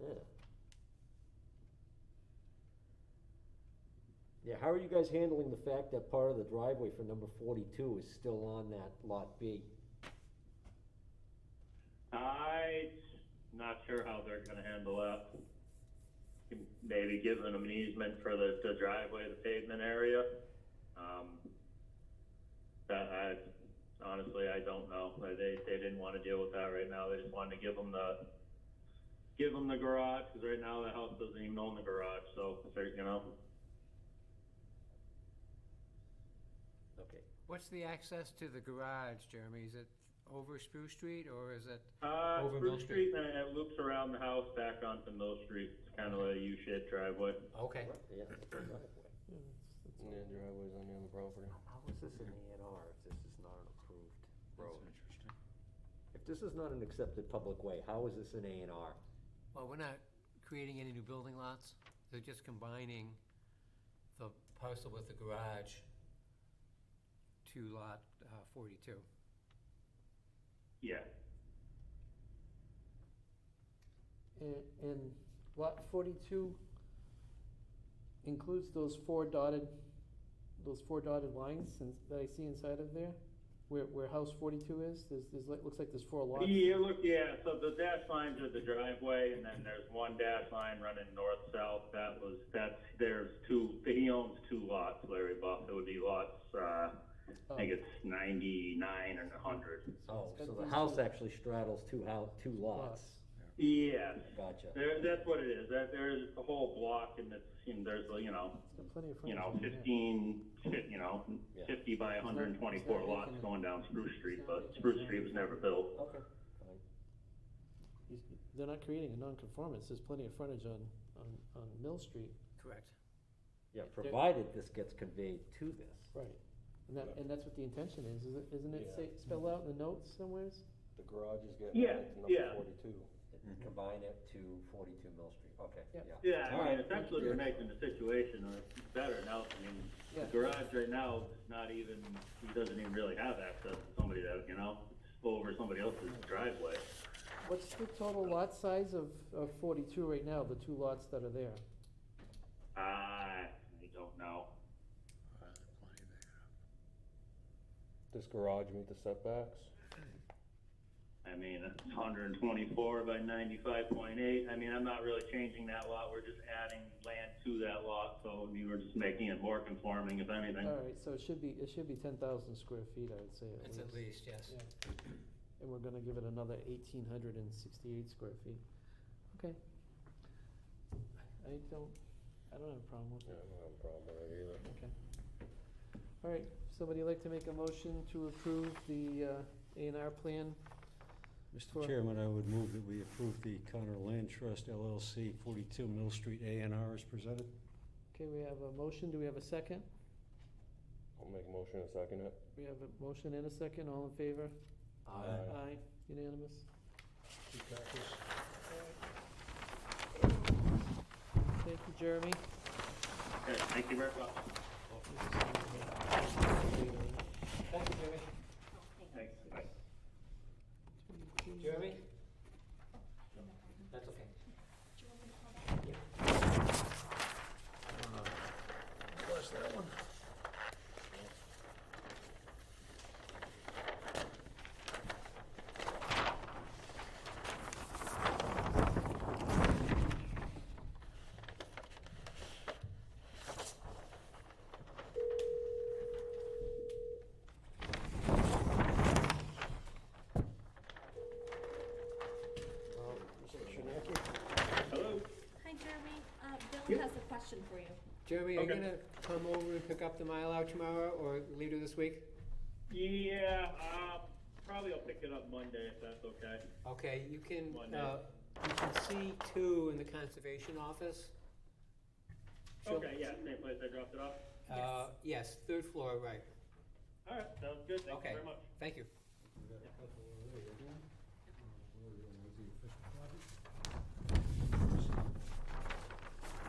Yeah. Yeah, how are you guys handling the fact that part of the driveway for number forty-two is still on that lot B? I'm not sure how they're gonna handle that. Maybe giving them an easement for the, the driveway, the pavement area. Um, that I, honestly, I don't know. Like, They, they didn't wanna deal with that right now. They just wanted to give them the, give them the garage, cause right now the house doesn't even own the garage, so, if they're, you know. Okay. What's the access to the garage, Jeremy? Is it over Spruce Street or is it, Uh, Over Mill Spruce Street, Street. and it loops around the house back onto Mill Street. It's kinda a U-shaped driveway. okay. Yeah. that's the driveway. Yeah, driveway's on the other property. How is this an A and R if this is not an approved road? interesting. If this is not an accepted public way, how is this an A and R? Well, we're not creating any new building lots. They're just combining the parcel with the garage to lot uh, forty-two. Yeah. And, and lot forty-two includes those four dotted, those four dotted lines in- that I see inside of there? Where, where house forty-two is, there's, there's, like- looks like there's four lots. Yeah, look, yeah, so the dash lines are the driveway, and then there's one dash line running north-south, that was, that's, there's two, he owns two lots, Larry Buff, it would be lots, uh, I think it's ninety-nine and a hundred. Oh, got so the these house two- actually straddles two hou- two lots. Yes, Gotcha. there, that's what it is, that, there's a whole block, and it's, and there's, you know, It's got plenty of you know, frontage in there. fifteen, fif- you know, Yeah. fifty by hundred and twenty-four lots going down Spruce Street, but Spruce Street was never built. Okay, fine. You- They're not creating a non-conformance, there's plenty of frontage on, on, on Mill Street. Correct. Yeah, provided this gets conveyed to this. Right. And that, and that's what the intention is, is it, isn't it Yeah. say, spelled out in the notes somewheres? The garage is getting Yeah, added to yeah. number forty-two. and Combine it to forty-two Mill Street, okay, Yeah. yeah. Yeah, All I mean, right. essentially, we're making the situation uh, better now, I mean, the Yeah. garage right now is not even, he doesn't even really have access to somebody that, you know, it's over somebody else's driveway. What's the total lot size of, of forty-two right now, the two lots that are there? Uh, I don't know. Does garage meet the setbacks? I mean, it's hundred and twenty-four by ninety-five point eight, I mean, I'm not really changing that lot, we're just adding land to that lot, so, I mean, we're just making it more conforming, if anything. All right, so it should be, it should be ten thousand square feet, I would say at It's least. at least, yes. Yeah. And we're gonna give it another eighteen hundred and sixty-eight square feet. Okay. I don't, I don't have a problem with Yeah, I it. don't have a problem with it either. Okay. All right, somebody like to make a motion to approve the, uh, A and R plan? Mr. For- Chairman, I would move that we approve the Connor Land Trust LLC, 42 Mill Street A and R is presented. Okay, we have a motion, do we have a second? I'll make a motion and second it. We have a motion and a second, all in favor? Aye. Aye, unanimous. Thank you, Jeremy. Okay, Thank you very much. Thank you, Jeremy. Thanks, bye. Jeremy? That's okay. Hello? Hi, Jeremy. Uh, Bill has a question for you. Jeremy, are you Okay. gonna come over and pick up the Mylar tomorrow or later this week? Yeah, uh, probably I'll pick it up Monday if that's okay. Okay, you can, One day. uh, you can see two in the conservation office. She'll- Okay, yeah, same place I dropped it off. Uh, yes, third floor, right. All right, sounds good. Thank you Okay. very much. Thank you.